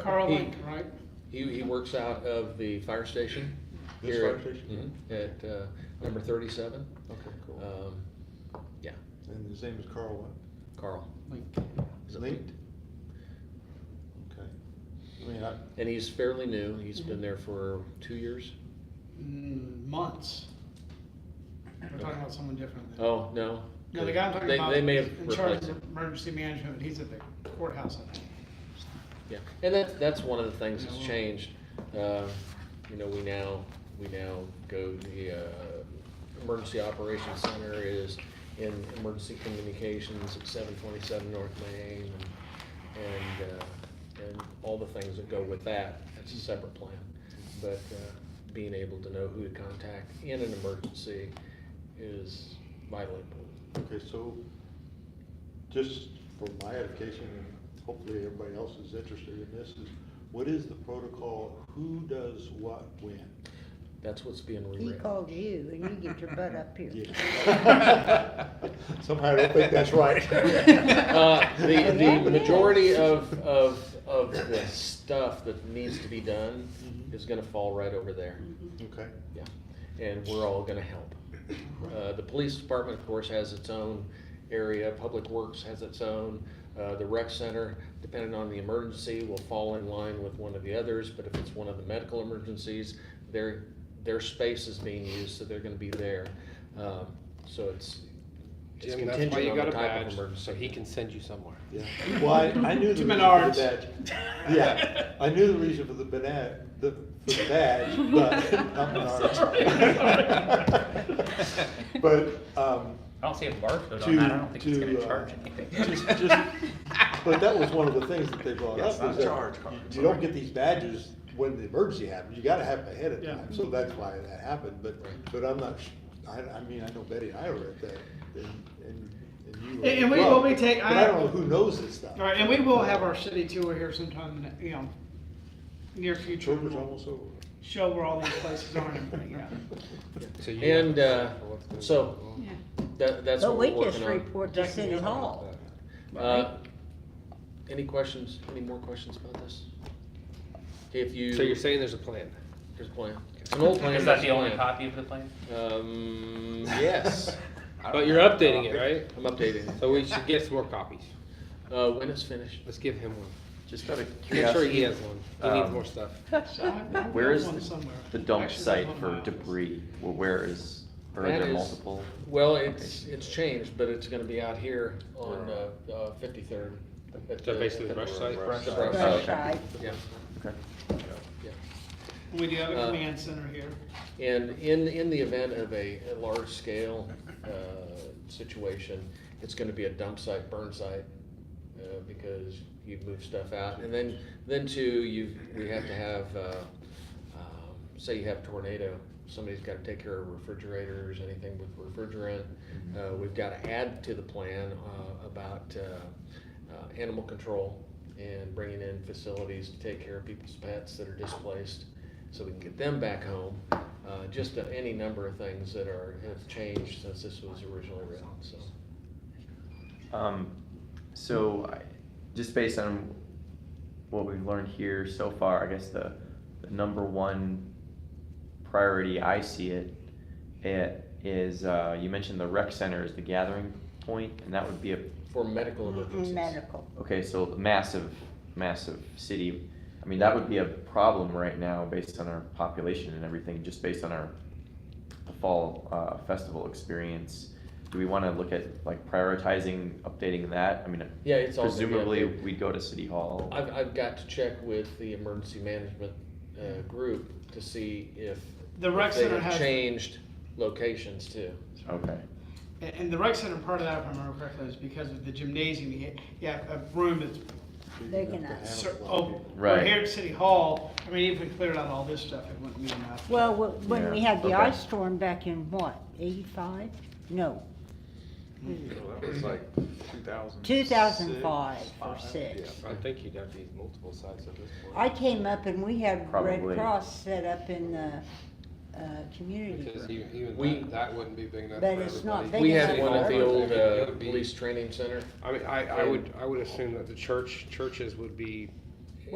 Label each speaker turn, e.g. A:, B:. A: Carl
B: He-
A: Link, right?
B: He, he works out of the fire station.
C: This
B: here
C: fire
B: at-
C: station?
B: mhm, At, uh, number thirty-seven.
C: Okay, cool.
B: Um, yeah,
C: And his name is Carl what?
B: Carl.
A: Link.
B: Is it
C: Linked? Okay. I mean, I,
B: And he's fairly new. He's
A: Mm-hmm.
B: been there for two years.
A: Mm, Months. We're talking about someone different. than-
B: Oh, no.
A: No, the guy I'm talking
B: They-
A: about
B: They may
A: is
B: have
A: in charge
B: replaced
A: of
B: him.
A: emergency management, he's at the courthouse, I think.
B: Yeah, and that, that's one of the things that's
A: Yeah.
B: changed. Uh, You know, we now, we now go, the uh, Emergency Operations Center is in Emergency Communications at seven twenty-seven North Main and, and, uh, and all the things that go with that. That's a separate plan. But uh, being able to know who to contact in an emergency is vitally important.
C: okay, so just for my education and hopefully everybody else is interested in this is, what is the protocol? Who does what when?
B: That's what's being
D: He
B: reread.
D: called you and you get your butt up here.
C: Yeah. Somehow I don't think that's right.
B: Uh, the,
D: Yeah, it
B: the
D: is.
B: majority of, of, of the stuff that needs to be done
E: Mm-hmm.
B: is gonna fall right over there,
C: Okay,
B: yeah, and we're all gonna help. Uh, the police department, of course, has its own area, public works has its own, uh, the rec center, depending on the emergency, will fall in line with one of the others, but if it's one of the medical emergencies, their, their space is being used, so they're gonna be there. Um, so it's, it's
E: Jim, that's why
B: contingent
E: you
B: on the
E: got a
B: type of
E: badge,
B: emergency.
E: so he can send you somewhere.
C: yeah. Well, I, I knew the
A: To
C: reason for
A: Menards.
C: the badge. Yeah, I knew the reason for the banana, the, for the badge, but not Menards. But, um,
F: I don't see a barcode on
C: to,
F: that, I don't think it's
C: to,
F: gonna
C: uh,
F: charge
C: just,
F: anything.
C: just, but that was one of the things that they brought
F: Yes,
C: up,
F: not
C: is that
F: charge
C: you-
F: cards,
C: you don't
F: sorry.
C: get these badges when the emergency happens, you gotta have them ahead of
A: Yeah.
C: time, so that's why that happened, but, but I'm not, sh- I, I mean, I know Betty and I were at that, and, and, and you were.
A: And- and
C: as
A: we
C: well,
A: will be take-
C: But I don't know who knows this stuff.
A: All right, and we will have our city tour here sometime, in the, you know, near future.
C: Tour was almost over.
A: Show where all these places are and everything, yeah.
E: So you have
B: And,
E: to
B: uh,
E: decide for what's going
B: so,
E: on.
B: that, that's
D: But
B: what
D: we
B: we're
D: just
B: working on.
D: report to City Hall.
B: Uh, Any questions, any more questions about this? If you.
E: So you're saying there's a plan?
B: There's a plan. It's an old plan.
F: Is
B: but
F: that
B: it's
F: the
B: a
F: only
B: plan.
F: copy of the plan?
E: Mm.
B: Um, yes,
E: But you're updating it, right?
B: I'm updating.
E: So we should get some more copies.
B: Uh, when it's finished,
E: Let's give him one.
G: Just out of
E: Make sure he
G: curiosity,
E: has one.
B: Uh,
E: He needs
G: Um,
E: more stuff.
A: So I- I
G: where
A: have
G: is
A: one
G: the-
A: somewhere.
G: the dump
A: Actually, there's
G: site
A: one in
G: for
A: my office.
G: debris, Well, where is, or are
B: That
G: there
B: is-
G: multiple?
B: well, it's, it's changed, but it's gonna be out here on, uh, uh, fifty-third.
E: So basically brush site?
B: The brush
G: Oh,
B: site,
G: okay.
D: Outside.
B: yeah.
G: Okay.
B: yeah.
A: We do have a
B: Uh,
A: command center here.
B: And in, in the event of a, a large scale, uh, situation, it's gonna be a dump site, burn site, uh, because you move stuff out. And then, then too, you, we have to have, uh, um, say you have a tornado, somebody's gotta take care of refrigerators, anything with refrigerant. Uh, we've gotta add to the plan, uh, about, uh, uh, animal control and bringing in facilities to take care of people's pets that are displaced so we can get them back home. Uh, just uh, any number of things that are, have changed since this was originally written, so.
G: Um, so I, just based on what we've learned here so far, I guess the, the number one priority I see it, it is, uh, you mentioned the rec center is the gathering point, and that would be a,
B: For medical emergencies.
D: Mm, Medical.
G: okay, so massive, massive city. I mean, that would be a problem right now based on our population and everything, just based on our fall, uh, festival experience. Do we wanna look at like prioritizing, updating that? I mean,
B: Yeah, it's all.
G: Presumably, we'd go to City Hall.
B: I've, I've got to check with the emergency management, uh, group to see if.
A: The rec
B: if they
A: center
B: have
A: has-
B: Changed locations too.
G: Okay,
A: And- And the rec center part of that, if I remember correctly, is because of the gymnasium, you yeah, a room that's
D: They
C: You have to
D: cannot
C: have a
A: cer-
C: lot of
A: oh,
C: people.
A: we're
G: Right.
A: here at City Hall, I mean, if we cleared out all this stuff, it wouldn't be enough.
D: Well, wh- when we
G: Yeah,
D: had the
G: okay.
D: ice storm back in what, eighty-five? No,
H: That was like two thousand.
D: two thousand five or
E: Yeah,
D: six.
E: I think you'd have these multiple sites at this point.
D: I came up and we had Red
G: Probably.
D: Cross set up in the, uh, community
E: Because
D: group.
E: even, even
B: We-
E: that, that wouldn't be big enough for
D: But
E: everybody.
D: it's not big
B: We had
D: enough
B: one at
D: for
B: the old,
E: It
B: uh,
E: would be-
B: police training center.
E: I mean, I, I would, I would assume that the church, churches would be